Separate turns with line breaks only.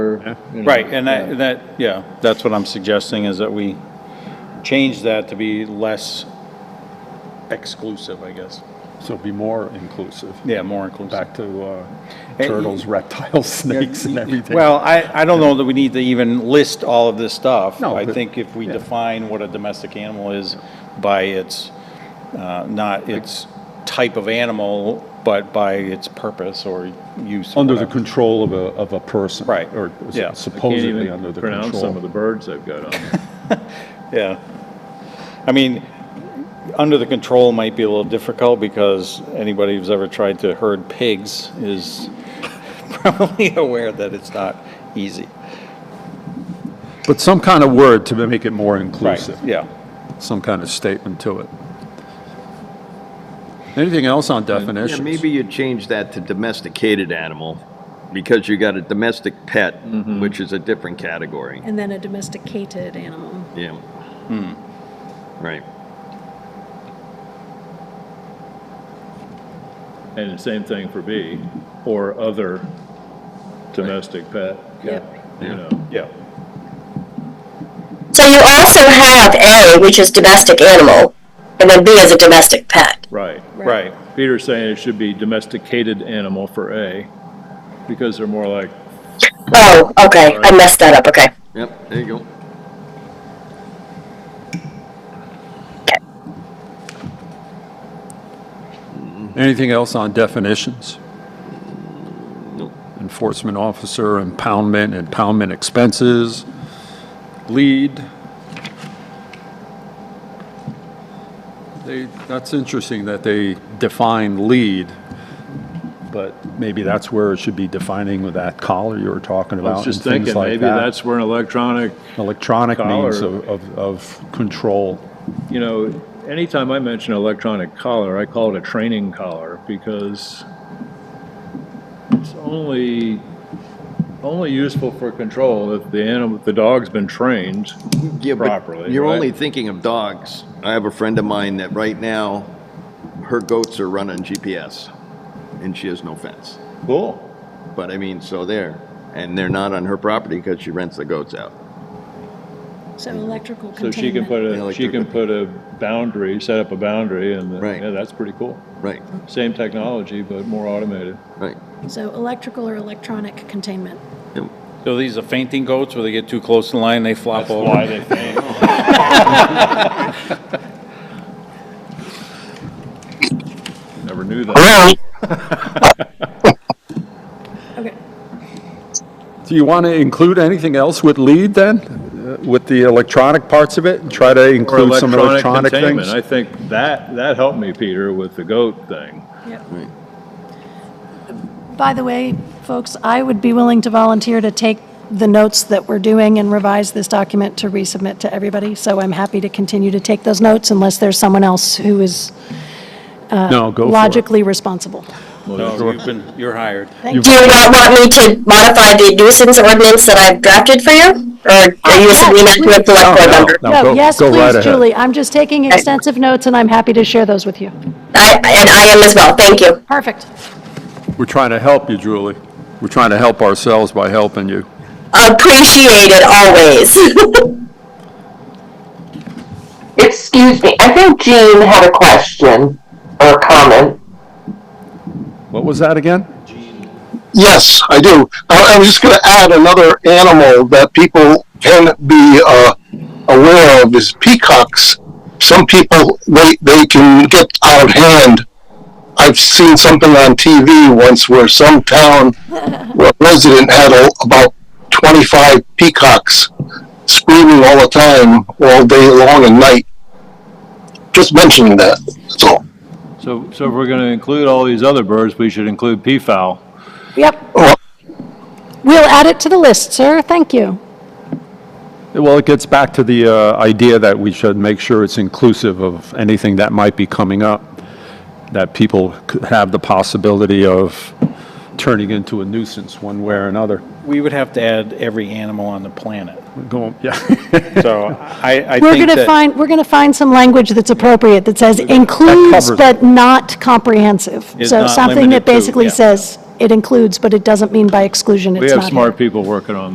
board. you know.
Right, and that, that, yeah, that's what I'm suggesting, is that we change that to be less exclusive, I guess.
So be more inclusive,
Yeah, more inclusive.
back to uh,
Eh,
turtles, reptiles, snakes and everything.
Well, I, I don't know that we need to even list all of this stuff.
No,
I
but-
think if we
yeah.
define what a domestic animal is by its, uh, not its type of animal, but by its purpose or use. or
Under the
whatever.
control of a, of a person.
uh, Right,
Or
yeah. I can't
Can't
supposedly under
even
the
pronounce some of
control.
the birds I've got on.
Yeah. I mean, under the control might be a little difficult because anybody who's ever tried to herd pigs is probably aware that it's not easy.
But some kind of word to make it more inclusive.
Yeah.
Some kind of statement to it. Anything else on definitions?
Yeah, maybe you change that to domesticated animal, because you got a domestic pet,
Mm-hmm.
which is a different category.
And then a domesticated animal.
Yeah.
Hmm.
Right.
And the same thing for B, or other domestic pet,
Yep.
you know.
Yeah.
So you also have A, which is domestic animal, and then B is a domestic pet.
Right.
Right.
Peter's saying it should be domesticated animal for A, because they're more like,
Oh, okay, I messed that up, okay.
Yep, there you go.
Anything else on definitions?
Nope.
Enforcement officer, impoundment, impoundment expenses, lead. They, that's interesting that they define lead, but maybe that's where it should be defining with that collar you were talking
I
about.
was just
and things
thinking,
like
maybe
that.
that's where an electronic,
Electronic means
collar.
of, of, of control.
you know, anytime I mention electronic collar, I call it a training collar, because it's only, only useful for control if the animal, if the dog's been trained
Yeah, but
properly.
You're
right?
only thinking of dogs. I have a friend of mine that right now, her goats are running GPS, and she has no fence.
Cool.
But I mean, so there, and they're not on her property because she rents the goats out.
So electrical
So
containment.
she can put
Yeah,
a,
like
she
they're-
can put a boundary, set up a boundary and,
Right.
yeah, that's pretty cool.
Right,
Same technology, but more automated.
right.
So electrical or electronic containment.
Yep.
So these are fainting goats where they get too close to the line, they flop over?
they faint. Never knew that.
Wow.
Okay.
Do you want to include anything else with lead then? Uh, With the electronic parts of it? Try to
Or
include some electronic
containment.
things?
I think that, that helped me, Peter, with the goat thing.
Yep.
Right.
By the way, folks, I would be willing to volunteer to take the notes that we're doing and revise this document to resubmit to everybody. So I'm happy to continue to take those notes unless there's someone else who is
No, go for it.
logically responsible.
No, you've been, you're hired.
Do you not want me to modify the nuisance ordinance that I've drafted for you? Or are you
Oh,
submitting that to a
No,
select board
no,
member?
no,
No,
go-
yes,
go right
please,
ahead.
Julie, I'm just taking extensive notes and I'm happy to share those with you.
I, and I am as well, thank you.
Perfect.
We're trying to help you, Julie. We're trying to help ourselves by helping you.
Appreciated always.
Excuse me, I think Jean had a question or a comment.
What was that again?
Yes, I do. I I was just going to add another animal that people can be uh, aware of is peacocks. Some people they they can get out of hand. I've seen something on TV once where some town where a resident had a, about 25 peacocks screaming all the time, all day long and night. Just mentioning that. That's all.
So, so if we're going to include all these other birds, we should include peafowl.
Yep,
Oh,
we'll add it to the list, sir, thank you.
Well, it gets back to the uh, idea that we should make sure it's inclusive of anything that might be coming up, that people could have the possibility of turning into a nuisance one way or another.
We would have to add every animal on the planet.
Go, yeah.
So I, I
We're
think
going to
that,
find, we're going to find some language that's appropriate, that says includes
covers
but not comprehensive.
Is
So
not
something
limited
that
to,
basically
yeah.
says it includes, but it doesn't mean by exclusion it's
We
not.
have
here.
smart people working on